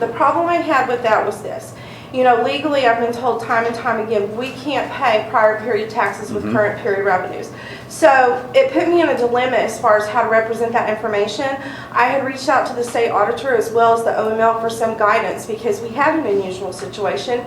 The problem I had with that was this. You know, legally, I've been told time and time again, we can't pay prior period taxes with current period revenues. So it put me in a dilemma as far as how to represent that information. I had reached out to the state auditor as well as the OML for some guidance because we had an unusual situation.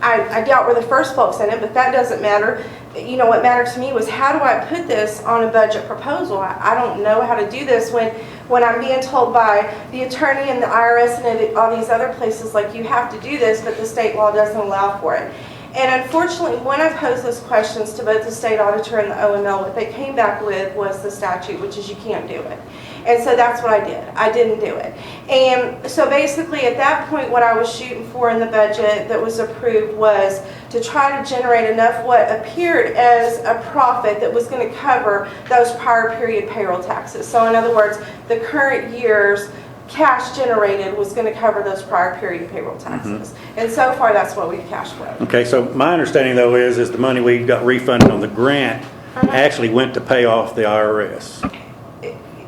I, I doubt we're the first folks in it, but that doesn't matter. You know, what mattered to me was how do I put this on a budget proposal? I, I don't know how to do this when, when I'm being told by the attorney and the IRS and all these other places, like, you have to do this, but the state law doesn't allow for it. And unfortunately, when I posed those questions to both the state auditor and the OML, what they came back with was the statute, which is you can't do it. And so that's what I did. I didn't do it. And so basically, at that point, what I was shooting for in the budget that was approved was to try to generate enough what appeared as a profit that was going to cover those prior period payroll taxes. So in other words, the current year's cash generated was going to cover those prior period payroll taxes. And so far, that's what we've cashed with. Okay, so my understanding though is, is the money we got refunded on the grant actually went to pay off the IRS.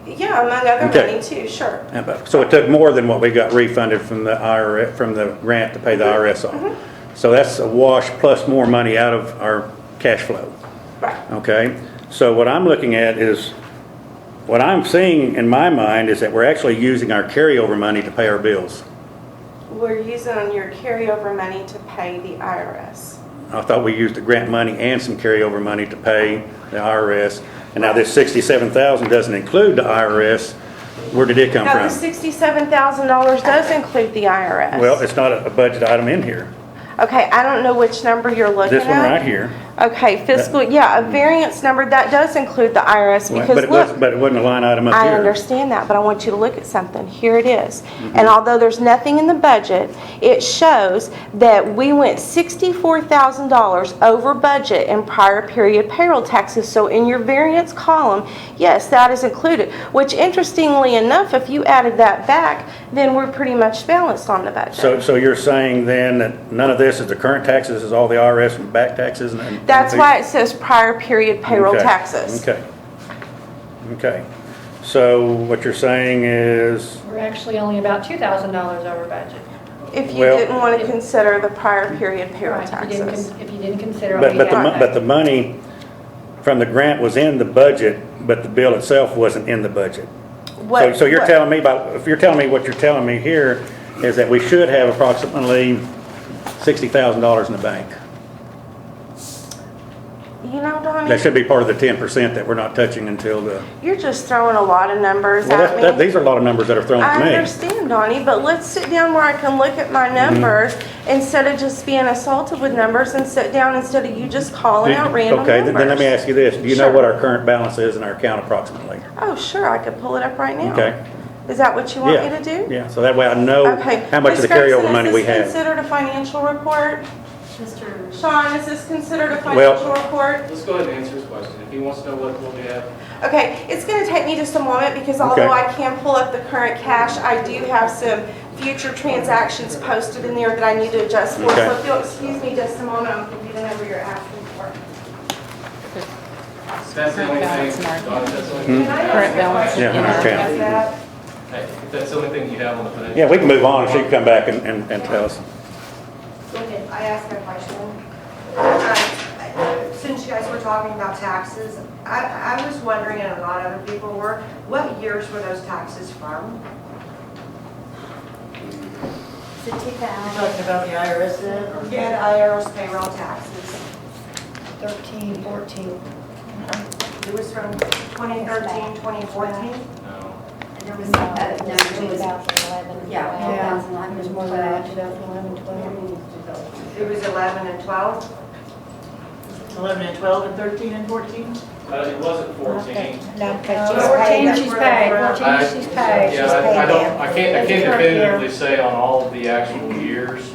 Yeah, among other Okay. money too, sure. And but- So it took more than what we got refunded from the IRS, from the grant to pay the IRS off. So that's a wash plus more money out of our cash flow, Right. okay? So what I'm looking at is, what I'm seeing in my mind is that we're actually using our carryover money to pay our bills. We're using your carryover money to pay the IRS. I thought we used the grant money and some carryover money to pay the IRS. And now this sixty-seven thousand doesn't include the IRS. Where did it come Now, the from? sixty-seven thousand dollars does include the IRS. Well, it's not a a budget item in here. Okay, I don't know which number you're looking at. This one right here. Okay, fiscal, yeah, a variance number, that does include the IRS But because it was, look, but it wasn't a line item up I here. understand that, but I want you to look at something. Here it is. Mm-hmm. And although there's nothing in the budget, it shows that we went sixty-four thousand dollars over budget in prior period payroll taxes. So in your variance column, yes, that is included, which interestingly enough, if you added that back, then we're pretty much balanced on the budget. So, so you're saying then that none of this is the current taxes, this is all the IRS and back taxes and- and? That's why it says prior period payroll Okay, taxes. Okay. Okay. So what you're saying is? We're actually only about $2,000 over budget. If you Well- didn't want to consider the prior period payroll Right, if you didn't taxes. con- If you didn't consider. what But, we but the, got. mon- but the money from the grant was in the budget, but the bill itself wasn't in the budget. So, What- so you're what- telling me about, if you're telling me what you're telling me here is that we should have approximately sixty thousand dollars in the bank. You know, That Donnie, should be part of the ten percent that we're not touching until the, you're just throwing a lot of numbers well, that's, at that, me. these are a lot of numbers that are thrown I at me. Mm-hmm. understand, Donnie, but let's sit down where I can look at my numbers instead of just being assaulted with numbers and sit down instead of you just calling out random numbers. Okay, then then let me ask you this, do you know Sure. what our current balance is in our account approximately? Oh, sure, I could pull it up right now. Okay. Is that what you want me Yeah, to do? Yeah, so that way I know Okay. how much of Ms. the Gregson, carryover money we have. Is this considered a financial report? Sean, is this considered a Well- financial report? Let's go ahead and answer his question. If he wants to know what, what we have, Okay, it's gonna take me just a moment because although Okay. I can pull up the current cash, I do have some future transactions posted in there that I need to adjust for. Okay. So if you'll excuse me just a moment, I'm computing over your asking for. that's the only balance thing, in our Don, that's the Hmm. Can only thing. I ask Current a balance question in our about account. that? Hey, If that's the only thing you have on the financial. Yeah, we can move on, and she can come back and, and, and tell us. I ask a question. Uh, Since you guys were talking about taxes, I, I was wondering, and a lot of other people were, what years were those taxes from? Talking about the IRS then? or- Yeah, the IRS payroll taxes. 13, 14. It was from 2013, 2014? No. And there was, uh, no, there was, yeah, Yeah, 2011. it was more than that, 2011, uh, 12. It was 11 and 12? 11 and 12 and 13 and 14? Uh, it wasn't fourteen. No, she's because paid, 14 that's she's where paid, we're at. 14 she's paid. Yeah, She's paid. I- I don't, I can't, I That's can't the current year. definitively say on all of the actual years,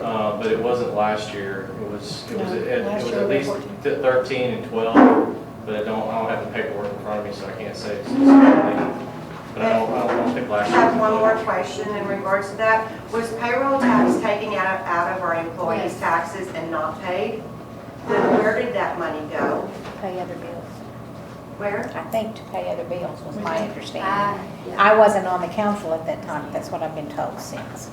uh, but it wasn't last year. It was, it was, No, at- it last was year at we least were th- thirteen and twelve, but I don't, I don't have the paperwork in front of me, so I can't say specifically. But I don't, I don't- I don't think I last year. have one more question in regards to that. Was payroll tax taken out of, out of our employees' Yes. taxes and not paid? Then where did that money go? pay other bills. Where? I think to pay other bills was my understanding. I- I wasn't on the council at that time, that's what I've been told since.